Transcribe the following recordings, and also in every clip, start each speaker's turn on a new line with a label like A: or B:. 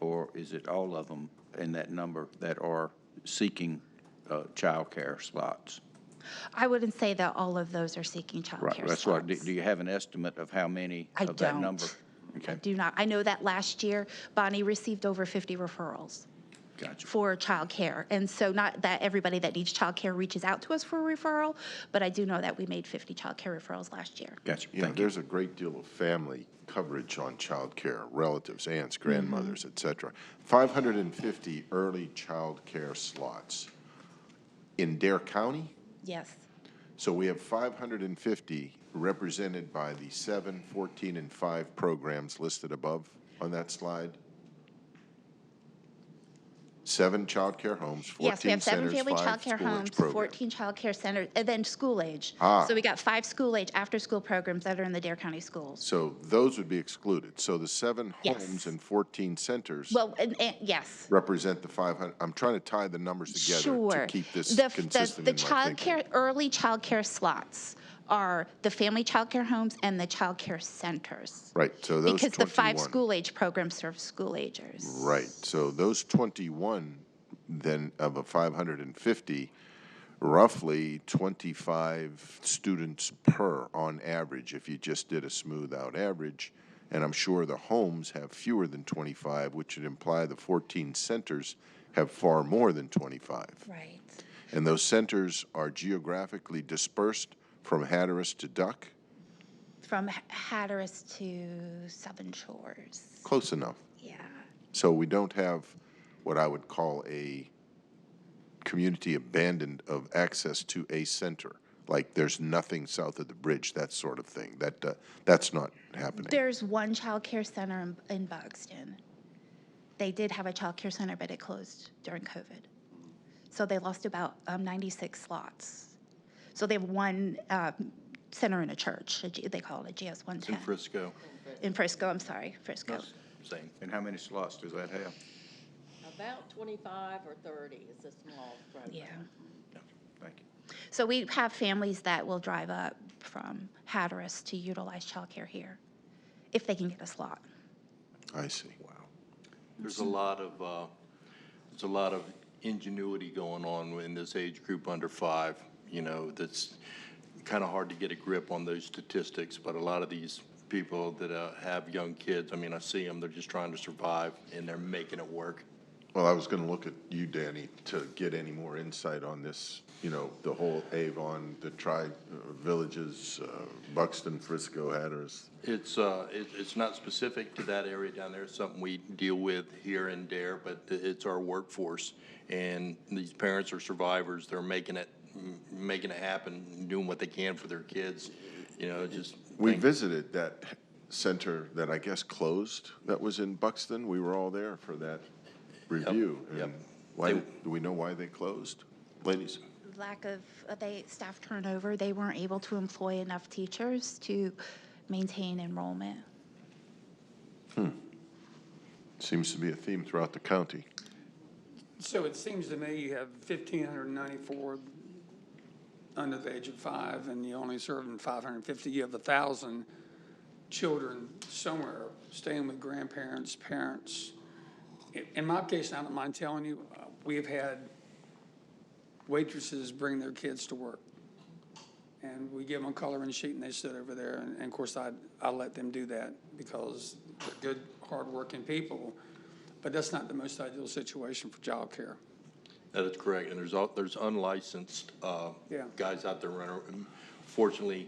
A: Or is it all of them in that number that are seeking uh, childcare slots?
B: I wouldn't say that all of those are seeking
A: Right,
B: childcare
A: that's right. Do
B: slots.
A: do you have an estimate of how many
B: I
A: of that
B: don't.
A: number?
B: I
A: Okay,
B: do not. I know that last year, Bonnie received over 50 referrals
A: gotcha.
B: for childcare. And so not that everybody that needs childcare reaches out to us for a referral, but I do know that we made 50 childcare referrals last year.
A: Gotcha,
C: You know,
A: thank you.
C: there's a great deal of family coverage on childcare, relatives, aunts,
B: Mm-hmm.
C: grandmothers, et cetera. 550 early childcare slots in Dare County.
B: Yes,
C: So we have 550 represented by the seven, 14, and five programs listed above on that slide. Seven childcare homes, 14
B: yes, we have seven
C: centers,
B: family
C: five
B: childcare
C: school age
B: homes,
C: programs.
B: 14 childcare centers, and then school age.
C: Ah.
B: So we got five school age after-school programs that are in the Dare County schools.
C: So those would be excluded. So the seven
B: Yes.
C: homes and 14 centers.
B: Well, and, and, yes.
C: represent the 500, I'm trying to tie the numbers together
B: Sure.
C: to keep this
B: The f- the-
C: consistent
B: The
C: in my thinking.
B: childcare, early childcare slots are the family childcare homes and the childcare centers.
C: Right, so those
B: Because the five
C: 21.
B: school-age programs serve school-agers.
C: Right, so those 21, then of a 550, roughly 25 students per on average, if you just did a smooth-out average. And I'm sure the homes have fewer than 25, which would imply the 14 centers have far more than 25.
B: Right.
C: And those centers are geographically dispersed from Hatteras to Duck?
B: From H- Hatteras to Southern Shores,
C: Close enough.
B: yeah.
C: So we don't have what I would call a community abandoned of access to a center. Like there's nothing south of the bridge, that sort of thing. That, uh, that's not happening.
B: There's one childcare center in- in Buxton. They did have a childcare center, but it closed during COVID. So they lost about um, 96 slots. So they have one um, center in a church, a G- they call it a GS
A: In
B: 110.
A: Frisco,
B: In Frisco, I'm sorry, Frisco.
A: same. And how many slots does that have?
D: About twenty-five or thirty is a small program.
B: Yeah.
A: Thank you.
B: So we have families that will drive up from Hatteras to utilize childcare here if they can get a slot.
C: I see.
E: There's a lot of, uh, there's a lot of ingenuity going on in this age group under five, you know, that's kind of hard to get a grip on those statistics, but a lot of these people that uh, have young kids, I mean, I see them, they're just trying to survive, and they're making it work.
C: Well, I was gonna look at you, Danny, to get any more insight on this, you know, the whole Avon, the tri-villages, uh, Buxton, Frisco, Hatteras.
E: It's, uh, it, it's not specific to that area down there, it's something we deal with here and there, but i- it's our workforce. And these parents are survivors, they're making it, m- making it happen, doing what they can for their kids, you know, just.
C: We
E: think-
C: visited that center that I guess closed, that was in Buxton. We were all there for that review.
E: yep.
C: And Why,
E: They-
C: did- do we know why they closed? Ladies,
B: Lack of, uh, they, staff turnover, they weren't able to employ enough teachers to maintain enrollment.
C: seems to be a theme throughout the county.
F: So it seems to me you have fifteen hundred and ninety-four under the age of five, and you only serving five hundred and fifty. You have a thousand children somewhere staying with grandparents, parents. In- In my case, I don't mind telling you, uh, we have had waitresses bring their kids to work. And we give them a coloring sheet and they sit over there. And, and of course, I, I let them do that because they're good, hardworking people. But that's not the most ideal situation for childcare.
E: That is correct, and there's, al- there's unlicensed uh,
F: Yeah.
E: guys out there running. around. Fortunately,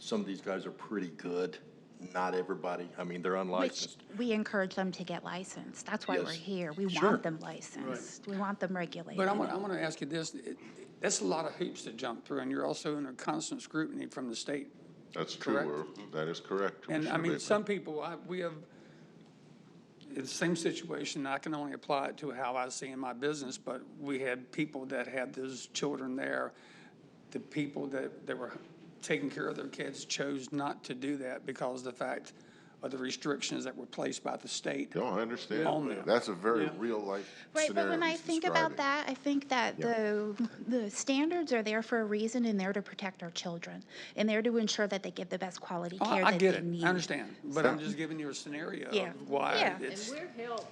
E: some of these guys are pretty good, not everybody, I mean, they're
B: Which
E: unlicensed.
B: we encourage them to get licensed. That's why we're
E: Yes.
B: here. We want them licensed. We want them regulated.
F: But I want, I want to ask you this, it- that's a lot of hoops to jump through and you're also under constant scrutiny from the state.
C: That's
F: true, Correct. Irv.
C: That is correct.
F: And I mean, some people, I, we have, it's the same situation, I can only apply it to how I see in my business, but we had people that had those children there. The people that, that were taking care of their kids chose not to do that because of the fact of the restrictions that were placed by the state.
C: No, I understand.
F: On there.
C: That's a very real-life
B: Right, but
C: scenario
B: when I
C: he's
B: think about
C: describing.
B: that, I think that the, the standards are there for a reason and they're to protect our children. And they're to ensure that they give the best quality
F: Oh, I-
B: care
F: I
B: that
F: get
B: they
F: it,
B: need.
F: I understand, but I'm just giving you a scenario
B: Yeah.
F: of why
B: Yeah.
F: it's.
D: And we're held,